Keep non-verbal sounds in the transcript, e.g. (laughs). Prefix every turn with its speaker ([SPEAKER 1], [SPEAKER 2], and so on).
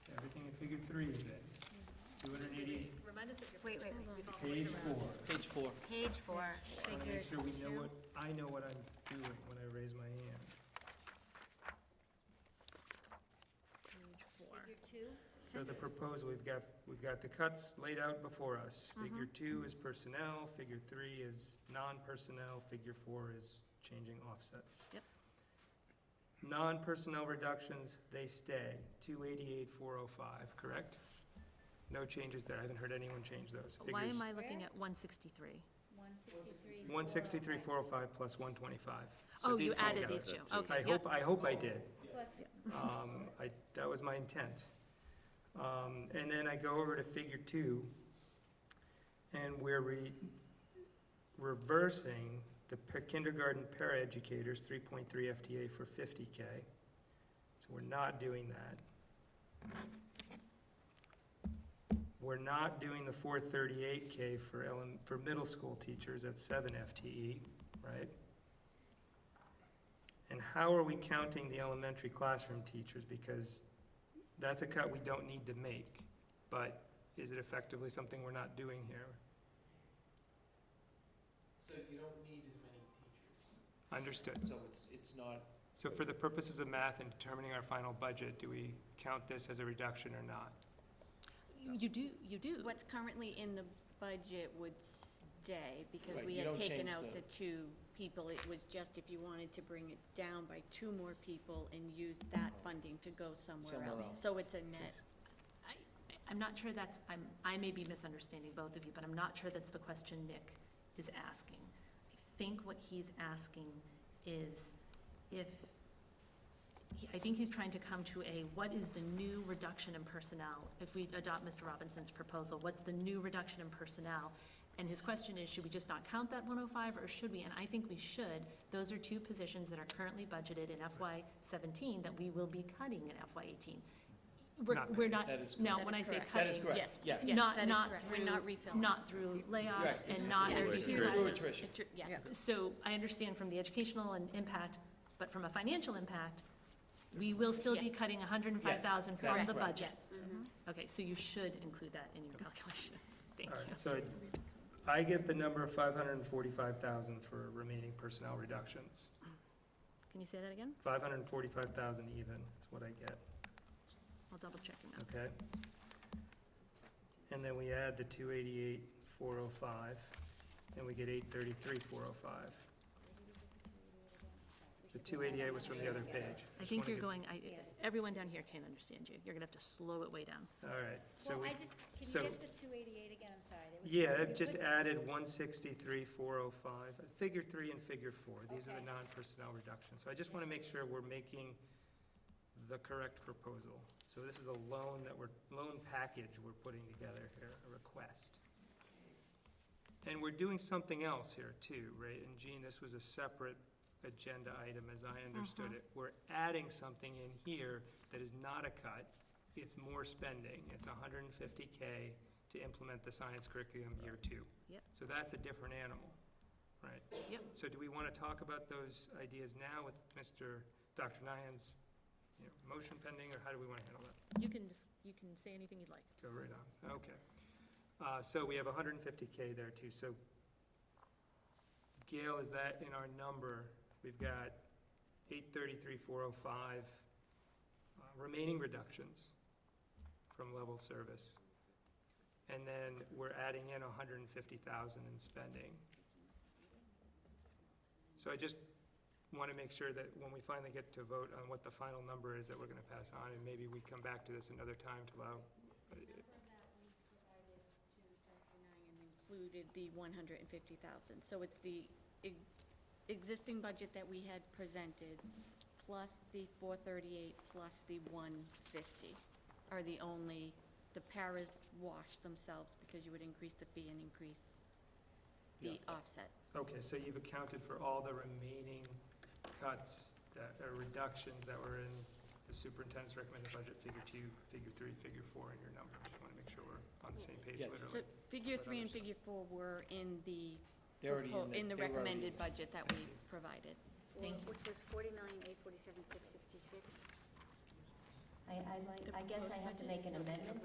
[SPEAKER 1] Wait, wait, wait.
[SPEAKER 2] Page four.
[SPEAKER 3] Page four.
[SPEAKER 1] Page four,
[SPEAKER 2] I wanna
[SPEAKER 1] figure
[SPEAKER 2] make sure we know what,
[SPEAKER 1] two.
[SPEAKER 2] I know what I'm doing when I raise my hand.
[SPEAKER 1] Page four.
[SPEAKER 4] Figure two,
[SPEAKER 2] So the proposal, we've got, we've got the cuts laid out before us.
[SPEAKER 1] Mm-hmm.
[SPEAKER 2] Figure two is personnel, figure three is non-personnel, figure four is changing offsets.
[SPEAKER 1] Yep.
[SPEAKER 2] Non-personnel reductions, they stay, two eighty-eight, four oh five, correct? No changes there, I haven't heard anyone change those.
[SPEAKER 5] Why am I looking at 163?
[SPEAKER 4] one sixty-three.
[SPEAKER 2] One sixty-three, four oh five plus one twenty-five.
[SPEAKER 5] Oh, you added these two, okay.
[SPEAKER 2] I
[SPEAKER 5] yep.
[SPEAKER 2] hope, I hope I did.
[SPEAKER 4] Plus,
[SPEAKER 2] Um, I, that was my intent. Um, and then I go over to figure two, and we're re, reversing the per- kindergarten paraeducators, three point three FTA for fifty K. So we're not doing that. We're not doing the four thirty-eight K for ele, for middle school teachers at seven FTE, right? And how are we counting the elementary classroom teachers? Because that's a cut we don't need to make, but is it effectively something we're not doing here?
[SPEAKER 3] So you don't need as many teachers.
[SPEAKER 2] Understood.
[SPEAKER 3] So it's, it's not,
[SPEAKER 2] So for the purposes of math and determining our final budget, do we count this as a reduction or not?
[SPEAKER 5] You you do, you do.
[SPEAKER 1] What's currently in the budget would stay, because
[SPEAKER 3] Right,
[SPEAKER 1] we
[SPEAKER 3] you
[SPEAKER 1] had
[SPEAKER 3] don't
[SPEAKER 1] taken
[SPEAKER 3] change
[SPEAKER 1] out
[SPEAKER 3] the-
[SPEAKER 1] the two people. It was just if you wanted to bring it down by two more people and use that funding to go somewhere
[SPEAKER 3] Somewhere
[SPEAKER 1] else.
[SPEAKER 3] else.
[SPEAKER 1] So it's a net.
[SPEAKER 5] I, I'm not sure that's, I'm, I may be misunderstanding both of you, but I'm not sure that's the question Nick is asking. I think what he's asking is if, he- I think he's trying to come to a, what is the new reduction in personnel? If we adopt Mr. Robinson's proposal, what's the new reduction in personnel? And his question is, should we just not count that 105, or should we? And I think we should. Those are two positions that are currently budgeted in FY '17 that we will be cutting in FY '18. We're,
[SPEAKER 2] Not
[SPEAKER 5] we're not,
[SPEAKER 3] That is
[SPEAKER 5] no,
[SPEAKER 1] That
[SPEAKER 5] when
[SPEAKER 1] is
[SPEAKER 5] I say
[SPEAKER 1] correct.
[SPEAKER 5] cutting.
[SPEAKER 3] That is correct.
[SPEAKER 1] Yes.
[SPEAKER 3] yes.
[SPEAKER 1] yes, that
[SPEAKER 5] Not,
[SPEAKER 1] is
[SPEAKER 5] not
[SPEAKER 1] correct.
[SPEAKER 5] through.
[SPEAKER 1] We're not refilling.
[SPEAKER 5] Not through layoffs
[SPEAKER 3] Correct.
[SPEAKER 5] and not
[SPEAKER 1] Yes.
[SPEAKER 5] through
[SPEAKER 1] It's
[SPEAKER 5] cuts.
[SPEAKER 3] through attrition.
[SPEAKER 1] It's- Yes.
[SPEAKER 5] So I understand from the educational and impact, but from a financial impact, we will still be
[SPEAKER 1] Yes.
[SPEAKER 5] cutting 105,000
[SPEAKER 3] Yes, that
[SPEAKER 5] from
[SPEAKER 3] is
[SPEAKER 5] the
[SPEAKER 3] correct.
[SPEAKER 5] budget.
[SPEAKER 1] Yes.
[SPEAKER 5] Okay, so you should include that in your calculations.
[SPEAKER 1] (laughs)
[SPEAKER 5] Thank
[SPEAKER 2] All
[SPEAKER 5] you.
[SPEAKER 2] right, so I get the number of five hundred and forty-five thousand for remaining personnel reductions.
[SPEAKER 5] Can you say that again?
[SPEAKER 2] Five hundred and forty-five thousand even is what I get.
[SPEAKER 5] I'll double check it now.
[SPEAKER 2] Okay. And then we add the two eighty-eight, four oh five, and we get eight thirty-three, four oh five. The two eighty-eight was from the other page.
[SPEAKER 5] I think you're going, I, everyone down here can't understand you. You're going to have to slow it way down.
[SPEAKER 2] All right, so
[SPEAKER 4] well,
[SPEAKER 2] we,
[SPEAKER 4] I just,
[SPEAKER 2] so-
[SPEAKER 4] can you get the two eighty-eight again, I'm sorry. that was-
[SPEAKER 2] yeah,
[SPEAKER 4] you
[SPEAKER 2] it just
[SPEAKER 4] put-
[SPEAKER 2] added one sixty-three, four oh five, figure three and figure four. These are the
[SPEAKER 4] Okay.
[SPEAKER 2] non-personnel reductions. So I just want to make sure we're making the correct proposal. So this is a loan that we're, loan package we're putting together here, a request. And we're doing something else here too, right? And Gene, this was a separate agenda item, as I
[SPEAKER 4] Uh-huh.
[SPEAKER 2] understood it. We're adding something in here that is not a cut, it's more spending. It's hundred and fifty K to implement the science curriculum year two.
[SPEAKER 5] Yep.
[SPEAKER 2] So that's a different animal, right?
[SPEAKER 5] Yep.
[SPEAKER 2] So do we want to talk about those ideas now with Mr., Dr. Nyan's, you know, motion pending, or how do we want to handle that?
[SPEAKER 5] You can just, you can say anything you'd like.
[SPEAKER 2] Go right on, okay. Uh, so we have hundred and fifty K there too, so Gail, is that in our number? We've got eight thirty-three, four oh five uh, remaining reductions from level service. And then we're adding in hundred and fifty thousand in spending. So I just want to make sure that when we finally get to vote on what the final number is that we're going to pass on, and maybe we come back to this another time to allow
[SPEAKER 1] Included the one hundred and fifty thousand, so it's the e- existing budget that we had presented, plus the four thirty-eight, plus the one fifty, are the only, the paras wash themselves, because you would increase the fee and increase the
[SPEAKER 5] uh,
[SPEAKER 1] offset.
[SPEAKER 2] Okay, so you've accounted for all the remaining cuts, that or reductions that were in the superintendent's recommended budget, figure two, figure three, figure four in your number. Just want to make sure we're on the same page
[SPEAKER 3] Yes.
[SPEAKER 1] So
[SPEAKER 2] literally.
[SPEAKER 1] figure
[SPEAKER 2] But
[SPEAKER 1] three and
[SPEAKER 2] understand.
[SPEAKER 1] figure four were in the,
[SPEAKER 3] They're already
[SPEAKER 1] propo- in the
[SPEAKER 3] they were already
[SPEAKER 1] recommended
[SPEAKER 3] in.
[SPEAKER 1] budget that we provided.
[SPEAKER 6] Which was forty million, eight forty-seven, six sixty-six.
[SPEAKER 7] I, I like, I guess I have to make an amendment